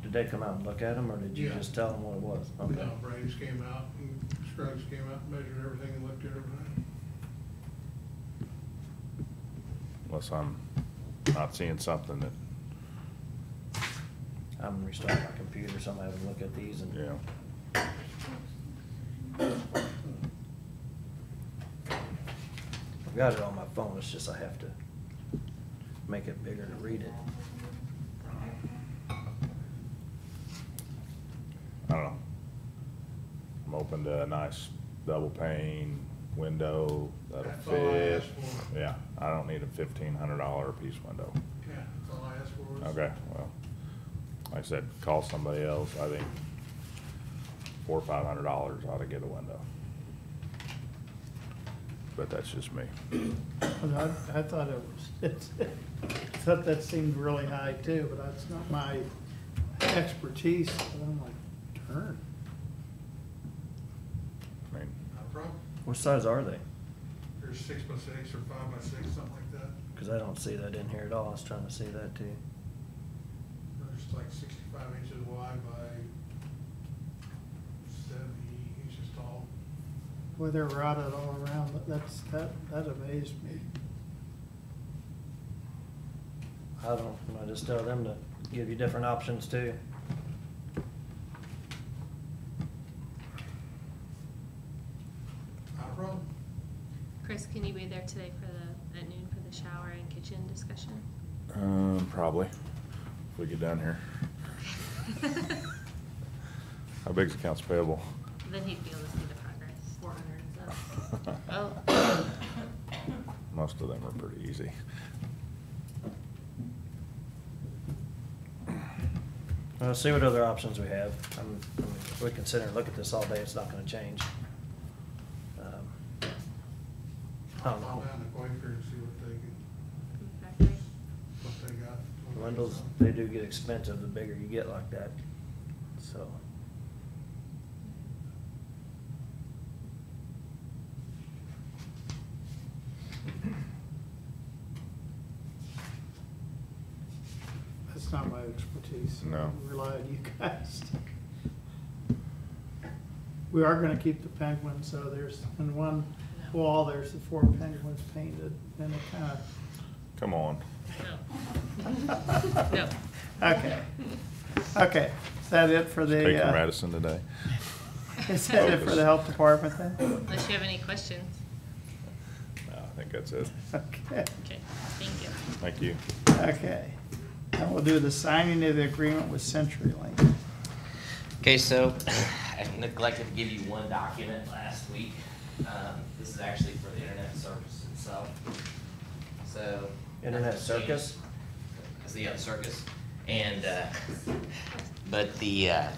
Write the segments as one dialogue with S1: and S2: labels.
S1: Did they come out and look at them, or did you
S2: Yeah.
S1: just tell them what it was? Okay.
S2: Uh, Braves came out, and Scruggs came out, and measured everything and looked at everything.
S3: unless I'm not seeing something that,
S1: I'm gonna restart my computer, so I'm gonna have a look at these and.
S3: yeah.
S1: I've got it on my phone, it's just I have to make it bigger to read it.
S3: I don't know. I'm open to a nice double pane window that'll
S2: That's all I
S3: fit.
S2: asked for.
S3: Yeah, I don't need a fifteen hundred dollar piece window.
S2: Yeah, that's all I asked for was.
S3: Okay, well, like I said, call somebody else, I think four, or five hundred dollars ought to get a window. But that's just me.
S4: I, I thought it was, I thought that seemed really high too, but that's not my expertise. And I'm like, darn.
S3: I mean,
S2: Not a problem.
S1: What size are they?
S2: uh, There's six by six or five by six, something like that.
S1: Cause I don't see that in here at all, I was trying to see that too.
S2: There's like sixty-five inches wide by seventy inches tall.
S4: Boy, they're rotted all around. That- That's, that, that amazed me.
S1: I don't, I just tell them to give you different options too.
S2: Not a problem.
S5: Chris, can you be there today for the, at noon for the shower and kitchen discussion?
S3: Um, probably, if we get down here. How big's accounts payable?
S5: Then he'd be able to see the progress. Four hundred. Oh,
S3: Most of them are pretty easy.
S1: Well, see what other options we have. I'm, I mean, we can sit here and look at this all day, it's not gonna change. Um, I
S2: I'll
S1: don't
S2: call
S1: know.
S2: down to Quaker and see what they can,
S5: exactly.
S2: what they got. what they
S1: Windows,
S2: got.
S1: they do get expensive the bigger you get like that, so.
S4: That's not my expertise.
S3: No.
S4: I Rely on you guys. We are gonna keep the penguins, so there's, in one wall, there's the four penguins painted and it kinda.
S3: Come on.
S5: Oh. No. No.
S4: Okay, okay. Is that it for the?
S3: Taking
S4: uh,
S3: Radisson today.
S4: Is that it for the health department then?
S5: Unless you have any questions.
S3: No, I think that's it.
S4: Okay,
S5: Okay, thank you.
S3: Thank you.
S4: okay. And we'll do the signing of the agreement with CenturyLink.
S6: Okay, so I neglected to give you one document last week. Um, This is actually for the internet circus itself. So.
S1: Internet circus?
S6: It's the uh, circus. And, uh, but the, uh,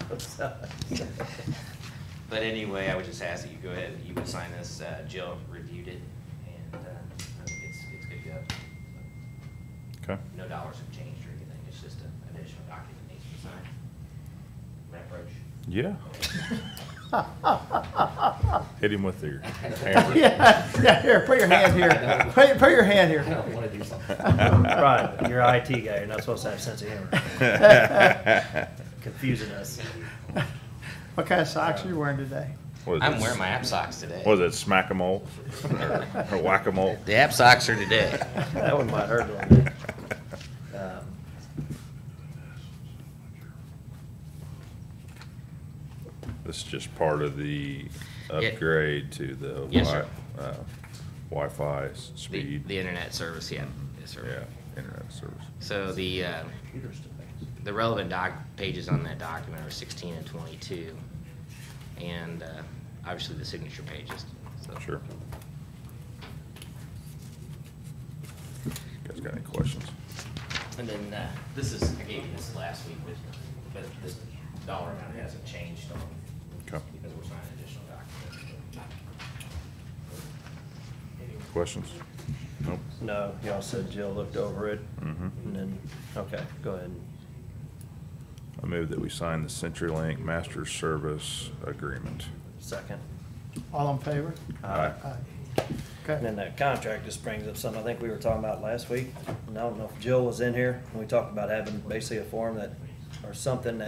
S6: but anyway, I would just ask that you go ahead and you would sign this. Uh, Jill reviewed it and uh, I think it's, it's good to go.
S3: Okay.
S6: No dollars have changed or anything. It's just an additional document needs to be signed. My approach.
S3: Yeah. Hit him with your hammer.
S4: Yeah, yeah, here, put your hand here. Put, put your hand
S6: I don't
S4: here.
S6: want to do something.
S1: Right, you're an IT guy, you're not supposed to have sense of humor, confusing us.
S4: What kind of socks are you wearing today?
S3: What is
S6: I'm
S3: it?
S6: wearing my app socks today.
S3: What is it, smack-a-mole or or whack-a-mole?
S6: The app socks are today.
S1: That one might hurt a little bit. Um,
S3: This is just part of the
S6: Yeah.
S3: upgrade to the Wi-
S6: Yes, sir.
S3: uh, Wi-Fi s-
S6: The,
S3: speed. Mm-hmm.
S6: the internet service, yeah. Yes, sir.
S3: Yeah, internet service.
S6: So the, uh,
S1: computers to things.
S6: the relevant doc, pages on that document are 16 and 22. And uh, obviously the signature pages. So.
S3: Sure. Guys got any questions?
S6: And then uh, this is, I gave you this last week, but- but this dollar amount hasn't changed on,
S3: Okay.
S6: because we're signing additional documents. Anyway.
S3: Questions? Nope.
S1: No, y'all said Jill looked over it,
S3: Mhm.
S1: and then, okay, go ahead.
S3: I move that we sign the CenturyLink Master Service Agreement.
S1: Second. Uh,
S4: All in favor?
S3: Aye.
S4: Aye.
S1: And
S4: Okay,
S1: then that contract just brings up something I think we were talking about last week, and I don't know if Jill was in here, when we talked about having basically a form that, or something that